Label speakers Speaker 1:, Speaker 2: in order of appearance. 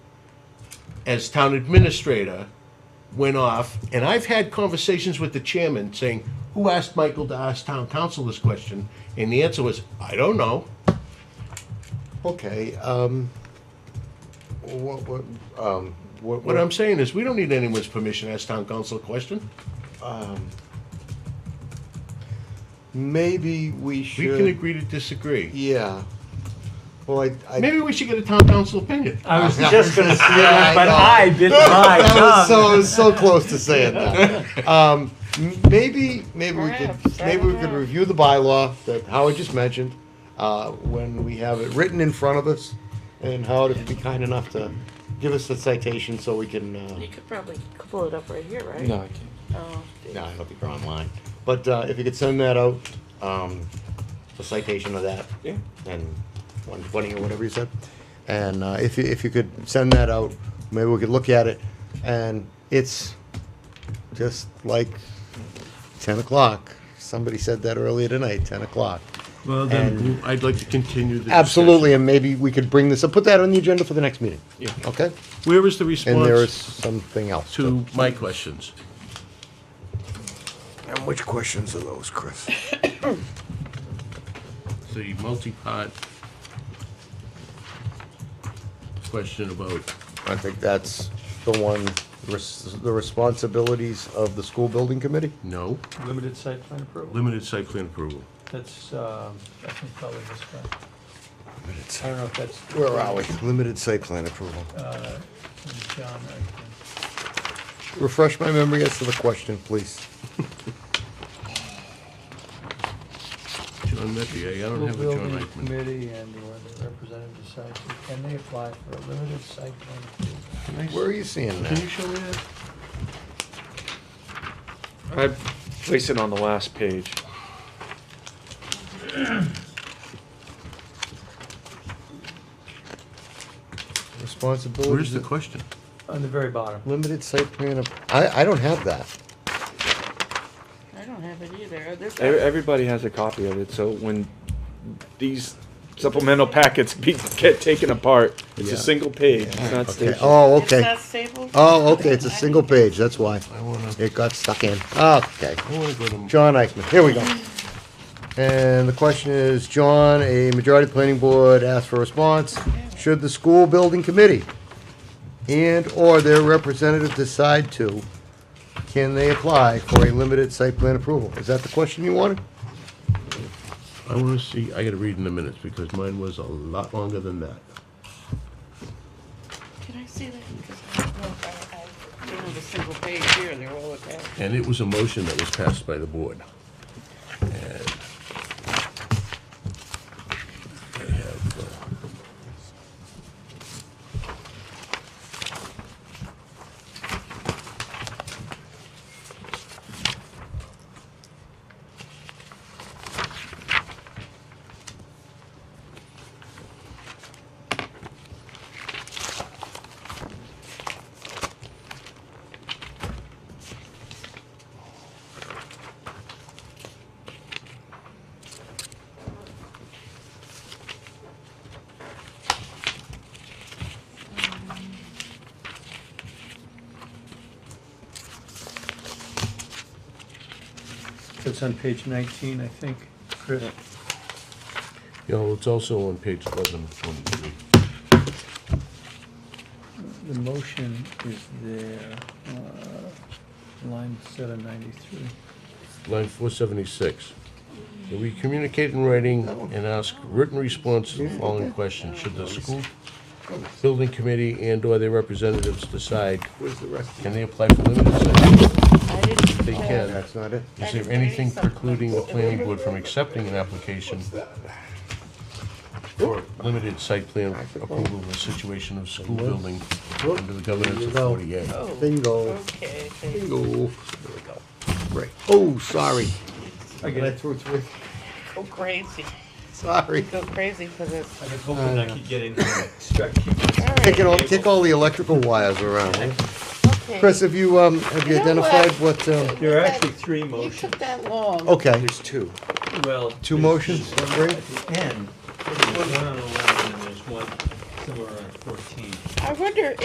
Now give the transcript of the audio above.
Speaker 1: as town administrator went off, and I've had conversations with the chairman saying, who asked Michael to ask town council this question? And the answer was, I don't know.
Speaker 2: Okay, um, what, what, um, what?
Speaker 1: What I'm saying is, we don't need anyone's permission to ask town council a question.
Speaker 2: Maybe we
Speaker 1: We
Speaker 2: should.
Speaker 1: can agree to disagree.
Speaker 2: Yeah. Well, I, I.
Speaker 1: Maybe we should get a town council opinion.
Speaker 3: I was just gonna say
Speaker 2: Yeah, I
Speaker 3: that, but
Speaker 2: know.
Speaker 3: I bit my
Speaker 2: That was
Speaker 3: tongue.
Speaker 2: so, it was so close to saying that. Um, m- maybe, maybe we could,
Speaker 4: Perhaps, I
Speaker 2: maybe
Speaker 4: don't
Speaker 2: we could
Speaker 4: know.
Speaker 2: review the bylaw that Howard just mentioned, uh, when we have it written in front of us. And Howard, if you'd be kind enough to give us the citation so we can, uh,
Speaker 4: You could probably pull it up right here, right?
Speaker 5: No, I can't.
Speaker 4: Oh,
Speaker 2: no, I don't think they're online. But, uh, if you could send that out, um, the citation of that,
Speaker 5: Yeah.
Speaker 2: and one twenty or whatever you said. And uh, if you, if you could send that out, maybe we could look at it. And it's just like ten o'clock. Somebody said that earlier tonight, ten o'clock.
Speaker 1: Well,
Speaker 2: then,
Speaker 1: I'd like to continue the
Speaker 2: Absolutely, and maybe we could bring this up, put that on the agenda for the next meeting.
Speaker 5: Yeah.
Speaker 2: Okay?
Speaker 1: discussion. Where is the
Speaker 2: And there is
Speaker 1: response
Speaker 2: something else.
Speaker 1: to my questions?
Speaker 6: And which questions are those, Chris?
Speaker 1: The multi-part question about,
Speaker 2: I think that's the one, res- the responsibilities of the school building committee.
Speaker 1: no,
Speaker 3: Limited site plan approval,
Speaker 1: limited site plan approval.
Speaker 3: that's, um, I think probably this guy. I don't know if that's.
Speaker 2: Where are we? Limited site plan approval.
Speaker 3: Uh, John, I
Speaker 2: Refresh my memory as to the question, please.
Speaker 1: John Meppier, I don't
Speaker 3: think.
Speaker 1: have a John
Speaker 3: Building
Speaker 1: Eichman.
Speaker 3: committee and or the representative decides, can they apply for a limited site plan approval?
Speaker 2: Where are you seeing
Speaker 1: Can you
Speaker 2: that?
Speaker 1: show me that?
Speaker 5: I place it on the last page.
Speaker 1: Where's
Speaker 2: Responsibilities,
Speaker 1: the
Speaker 2: of-
Speaker 1: question?
Speaker 3: On the very bottom.
Speaker 2: limited site plan, app- I, I don't have that.
Speaker 4: I don't have it either. This-
Speaker 5: Ev- Everybody has a copy of it, so when these supplemental packets be, get taken apart, it's
Speaker 1: Yeah.
Speaker 5: a single page, it's not
Speaker 2: Okay,
Speaker 5: stationed.
Speaker 2: oh,
Speaker 4: It's
Speaker 2: okay.
Speaker 4: not stable?
Speaker 2: Oh, okay, it's a single page, that's why.
Speaker 1: I wanna,
Speaker 2: It got stuck in. Okay.
Speaker 1: I wanna go to,
Speaker 2: John Eichman, here we go. And the question is, John, a majority of planning board asked for a response. Should the school building committee and/or their representative decide to, can they apply for a limited site plan approval? Is that the question you wanted?
Speaker 1: I wanna see, I gotta read in the minutes, because mine was a lot longer than that.
Speaker 4: Can I see that? Because I don't know if I, I don't have a single page here. They're all attached.
Speaker 1: And it was a motion that was passed by the board. And I have, uh,
Speaker 3: It's on page nineteen, I think, Chris.
Speaker 1: You know, it's also on page eleven twenty-three.
Speaker 3: The motion is there, uh, line seven ninety-three.
Speaker 1: line four seventy-six. That we communicate in writing and ask written response to the following question. Should the school building committee and/or their representatives decide,
Speaker 2: Where's the rest?
Speaker 1: can they apply for limited site?
Speaker 4: I didn't.
Speaker 1: They can.
Speaker 2: That's not it.
Speaker 1: Is there anything precluding the planning board from accepting an application for limited site plan approval in the situation of school building under the governance of forty-eight?
Speaker 4: Oh,
Speaker 2: Bingo,
Speaker 4: okay.
Speaker 2: bingo. There we go. Right. Oh, sorry.
Speaker 3: I get
Speaker 2: I
Speaker 3: it.
Speaker 2: threw it through.
Speaker 4: Go crazy.
Speaker 2: Sorry.
Speaker 4: Go crazy for this.
Speaker 7: I was hoping I could get in here and start keeping
Speaker 4: All
Speaker 2: Take it
Speaker 4: right.
Speaker 2: all, take all the electrical wires around. huh?
Speaker 4: Okay.
Speaker 2: Chris, have you, um, have you
Speaker 4: You know what?
Speaker 2: identified what, um,
Speaker 7: There are actually three
Speaker 4: You
Speaker 7: motions.
Speaker 4: took that long.
Speaker 2: okay,
Speaker 5: There's two.
Speaker 7: Well.
Speaker 2: two
Speaker 7: there's-
Speaker 2: motions,
Speaker 7: there's one
Speaker 2: Bree?
Speaker 7: At the end, there's one on eleven and there's one somewhere around fourteen.
Speaker 4: I wonder